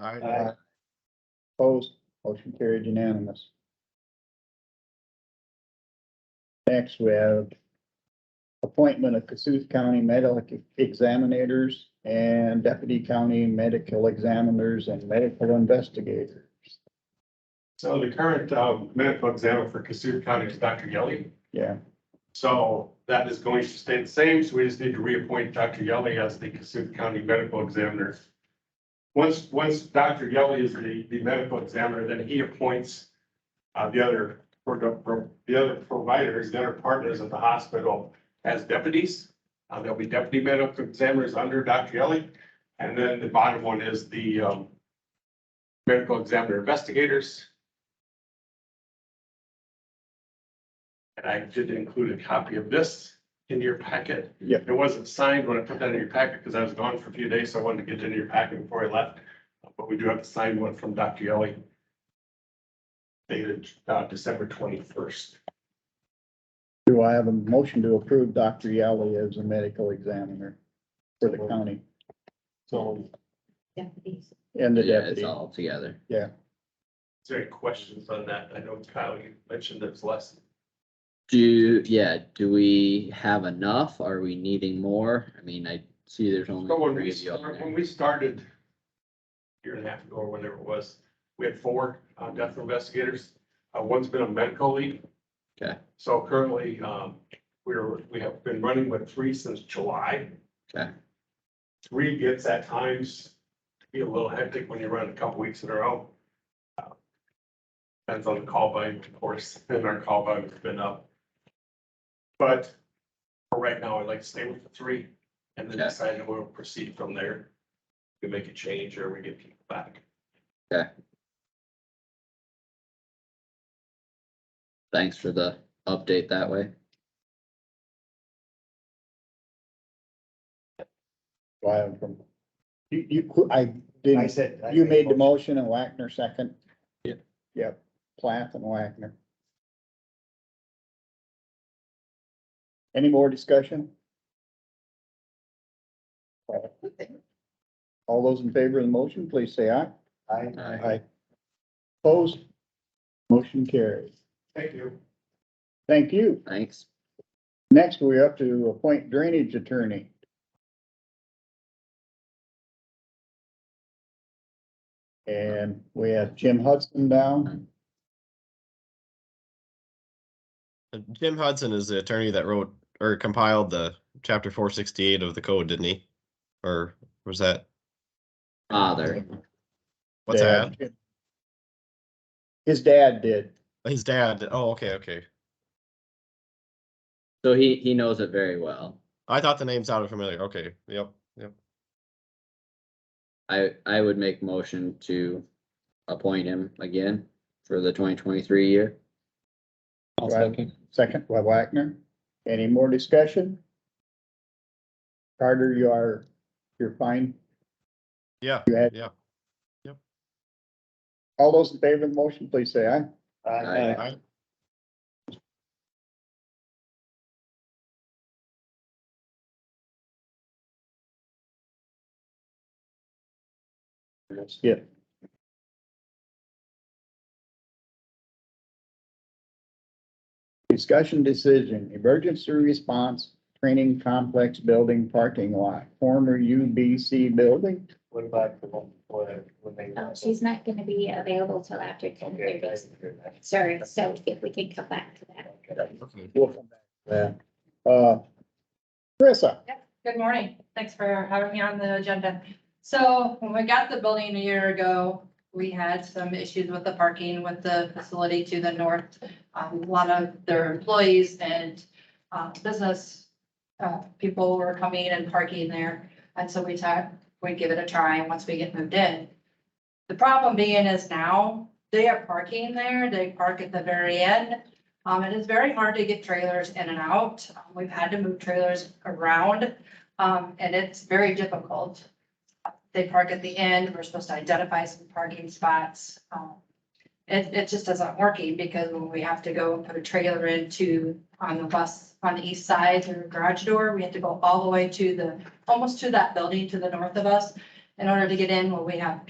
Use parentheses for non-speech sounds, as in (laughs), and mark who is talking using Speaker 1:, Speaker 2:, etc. Speaker 1: Aye. Opposed, motion carried unanimous. Next, we have appointment of Cassuth County Medical Examiners and Deputy County Medical Examiners and Medical Investigators.
Speaker 2: So the current um, medical examiner for Cassuth County is Dr. Yelly.
Speaker 1: Yeah,
Speaker 2: So that is going to stay the same, so we just need to reappoint Dr. Yelly as the Cassuth County Medical Examiner. Once, once Dr. Yelly is the, the medical examiner, then he appoints uh, the other, pro- pro- the other providers, the other partners at the hospital as deputies. Uh, There'll be deputy medical examiners under Dr. Yelly, and then the bottom one is the um, medical examiner investigators. And I did include a copy of this in your packet.
Speaker 1: Yeah.
Speaker 2: It wasn't signed when I put that in your packet because I was gone for a few days, so I wanted to get it in your packet before I left. But we do have the signed one from Dr. Yelly. Dated uh, December twenty-first.
Speaker 1: do I have a motion to approve Dr. Yali as a medical examiner for the county
Speaker 2: So
Speaker 3: deputies.
Speaker 1: and the
Speaker 4: Yeah, it's
Speaker 1: deputy?
Speaker 4: all together.
Speaker 2: is there any questions on that? I know Kyle, you mentioned there's less.
Speaker 4: Do, yeah, do we have enough? Are we needing more? I mean, I see there's only
Speaker 2: So when
Speaker 4: three
Speaker 2: we,
Speaker 4: of you up
Speaker 2: start-
Speaker 4: there.
Speaker 2: when we started a year and a half ago or whatever it was, we had four uh, death investigators. Uh, one's been a medical lead.
Speaker 4: Okay.
Speaker 2: So currently, um, we're, we have been running with three since July.
Speaker 4: Okay.
Speaker 2: Three gets at times to be a little hectic when you run a couple weeks in a row. Uh, Depends on the call volume, of course, (laughs) and our call volume's been up. But for right now, I'd like to stay with the three and then
Speaker 4: Okay.
Speaker 2: decide how we'll proceed from there. We make a change or we get people back.
Speaker 4: Thanks for the update that way.
Speaker 1: Do I have from? You, you, I didn't.
Speaker 5: I said. I
Speaker 1: You made the motion and Wagner second?
Speaker 4: Yeah.
Speaker 1: Yep, Plath and Wagner. Any more discussion? All those in favor of the motion, please say aye.
Speaker 5: I,
Speaker 4: Aye.
Speaker 1: Opposed? Motion carries.
Speaker 2: Thank you.
Speaker 1: Thank you.
Speaker 4: Thanks.
Speaker 1: Next, we're up to appoint drainage attorney. And we have Jim Hudson down.
Speaker 6: Jim Hudson is the attorney that wrote or compiled the chapter four sixty-eight of the code, didn't he? Or was that,
Speaker 4: Father,
Speaker 6: what's that?
Speaker 1: Dad. His dad did.
Speaker 6: His dad, did- oh, okay, okay.
Speaker 4: so he, he knows it very well.
Speaker 6: I thought the name sounded familiar, okay, yep, yep.
Speaker 4: I, I would make motion to appoint him again for the twenty twenty-three year.
Speaker 1: I'll second. Second by Wagner. Any more discussion? Carter, you are, you're fine.
Speaker 6: Yeah,
Speaker 1: You had-
Speaker 6: yeah.
Speaker 1: All those in favor of the motion, please say aye.
Speaker 5: I,
Speaker 4: Aye.
Speaker 1: Let's Skip. Discussion decision, emergency response training complex building parking lot, former UBC building.
Speaker 5: what about the one before that, when they?
Speaker 3: Oh, she's not gonna be available till after ten
Speaker 5: Okay.
Speaker 3: thirty.
Speaker 5: I heard that.
Speaker 3: Sorry, so if we can come back to that.
Speaker 5: Okay.
Speaker 1: We'll come back to that. Uh, Carissa,
Speaker 7: Good morning. Thanks for having me on the agenda. So when we got the building a year ago, we had some issues with the parking with the facility to the north. Um, A lot of their employees and uh, business uh, people were coming and parking there. And so we thought we'd give it a try once we get moved in. The problem being is now they are parking there. They park at the very end. Um, It is very hard to get trailers in and out. We've had to move trailers around. Um, and it's very difficult. They park at the end, we're supposed to identify some parking spots. Um, It, it just isn't working because when we have to go and put a trailer into, on the bus, on the east side through garage door, we have to go all the way to the, almost to that building to the north of us in order to get in, where we have